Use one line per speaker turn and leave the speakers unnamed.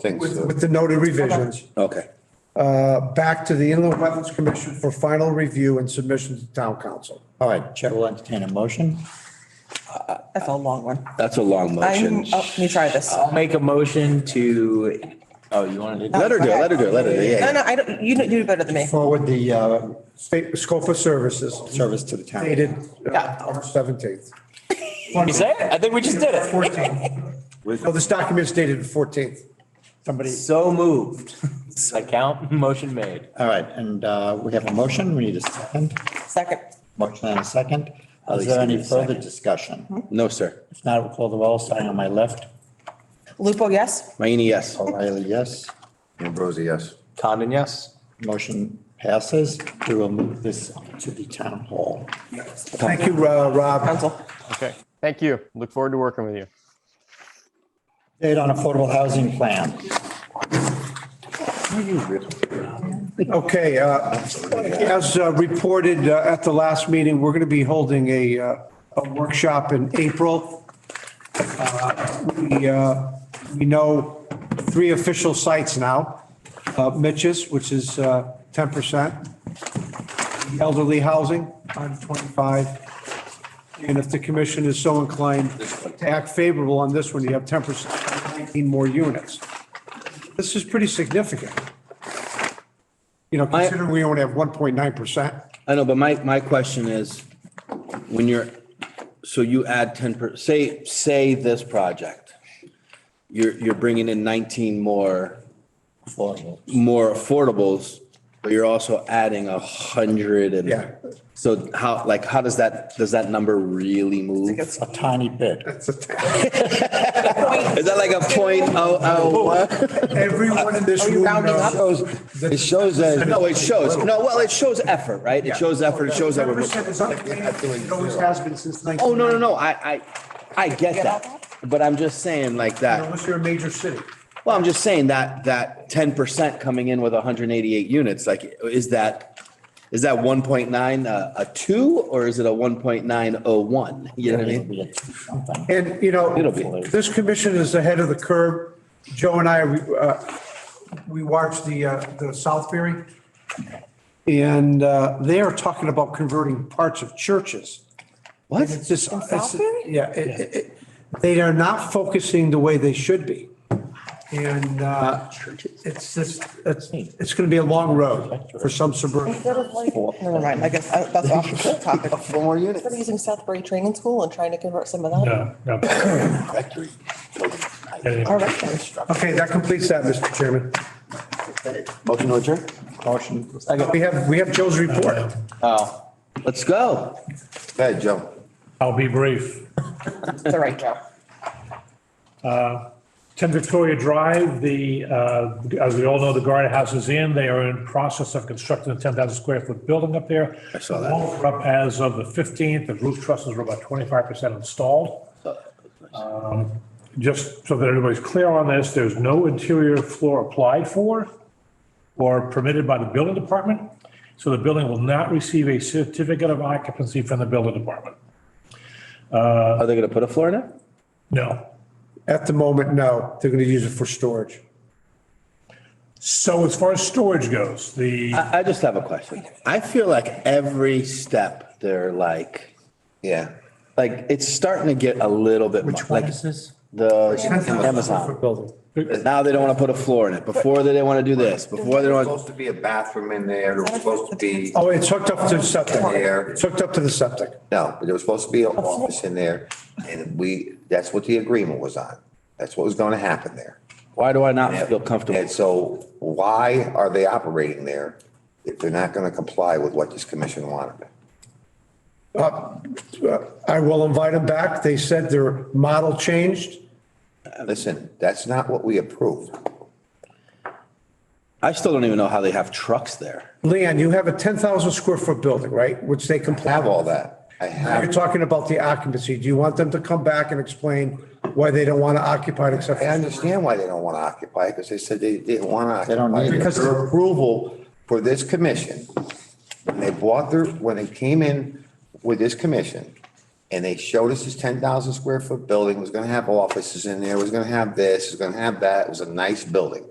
Think
with,
so.
with the noted revisions,
Okay.
uh, back to the Inland Wetlands Commission for final review and submission to town council.
All right, Chair will entertain a motion.
That's a long one.
That's a long
I'm,
motion.
oh, let me try this.
I'll make a motion to, oh, you wanted to?
Let her do it, let her do it, let her do it, yeah,
No,
yeah.
no, I don't, you do better than me.
Forward the uh,
State, scope of services
service to the town.
dated uh, March 17th.
Did we say it? I think we just did it.
14th. No, this document's dated the 14th.
Somebody. So moved. I count, motion made. All right, and uh, we have a motion, we need a second,
Second.
motion and a second. Is there any further discussion?
No, sir.
If not, we'll call the roll, starting on my left.
Lupo, yes?
Mayini, yes.
O'Reilly, yes.
Ambrosi, yes.
Condon, yes.
Motion passes. We will move this to the town hall.
Thank you, uh, Rob.
Council.
Okay, thank you. Look forward to working with you.
Date on affordable housing plan.
Okay, uh, as uh, reported uh, at the last meeting, we're going to be holding a, uh, a workshop in April. Uh, We, uh, we know three official sites now. Uh, Mitch's, which is uh, 10%. Elderly housing, on 25. And if the commission is so inclined to act favorable on this one, you have 10%, 19 more units. This is pretty significant. You know, considering we only have 1.9%.
I know, but my, my question is, when you're, so you add 10 per, say, say this project, you're, you're bringing in 19 more,
Affordable.
more affordables, but you're also adding a 100 and.
Yeah.
So how, like, how does that, does that number really move? Is
A tiny bit.
that like a point oh oh?
Everyone in this
Are you
room
rounding up?
knows.
It shows that.
No, it shows, no, well, it shows effort, right? It shows effort, it shows effort.
10% is unpaid. It always has been since 19.
Oh, no, no, no, I, I, I get that, but I'm just saying like that,
Unless you're a major city.
well, I'm just saying that, that ten percent coming in with hundred and eighty-eight units, like, is that, is that one point nine, a, a two, or is it a one point nine oh one? You know what I
It'll
mean?
be a something.
And, you know,
It'll be.
this commission is ahead of the curve. Joe and I, we, uh, we watched the, uh, the South Ferry. And uh, they are talking about converting parts of churches.
What?
It's just.
In Southbury?
Yeah, it, it, it- they are not focusing the way they should be. And, uh, it's just, it's, it's gonna be a long road for some suburban.
Never mind, I guess uh, that's off the topic. Four more units. They're using Southbury Training School and trying to convert some of that.
No, no.
All right, then.
Okay, that completes that, Mr. Chairman.
Motion to adjourn?
Motion.
We have, we have Joe's report.
Oh, let's go.
Hey, Joe.
I'll be brief.
It's all right, Joe.
10 Victoria Drive, the, uh, as we all know, the Garden House is in. They are in process of constructing a 10,000 square foot building up there. I
saw that.
Walls are up as of the 15th. The roof trusses are about 25% installed. Um, Just so that everybody's clear on this, there's no interior floor applied for or permitted by the building department. So the building will not receive a certificate of occupancy from the building department.
Are they gonna put a floor in it?
No.
At the moment, no, they're gonna use it for storage.
So as far as storage goes, the.
I, I just have a question. I feel like every step they're like,
Yeah.
like, it's starting to get a little bit. Which one is this? The Amazon.
Building.
Now they don't want to put a floor in it. Before they didn't want to do this. Before they don't.
Supposed to be a bathroom in there. There was supposed to be,
Oh, it's hooked up to the septic.
Air.
It's hooked up to the septic.
no, there was supposed to be an office in there. And we, that's what the agreement was on. That's what was going to happen there.
Why do I not feel comfortable?
And so why are they operating there if they're not going to comply with what this commission wanted?
I will invite them back. They said their model changed.
Listen, that's not what we approved.
I still don't even know how they have trucks there.
Leon, you have a 10,000 square foot building, right? Which they
I
comply
have all that. I
You're
have,
talking about the occupancy. Do you want them to come back and explain why they don't want to occupy it except?
I understand why they don't want to occupy because they said they didn't want to.
They don't need it.
Because their approval for this commission, when they bought their, when they came in with this commission And they showed us this ten thousand square foot building, was gonna have offices in there, was gonna have this, was gonna have that, it was a nice building.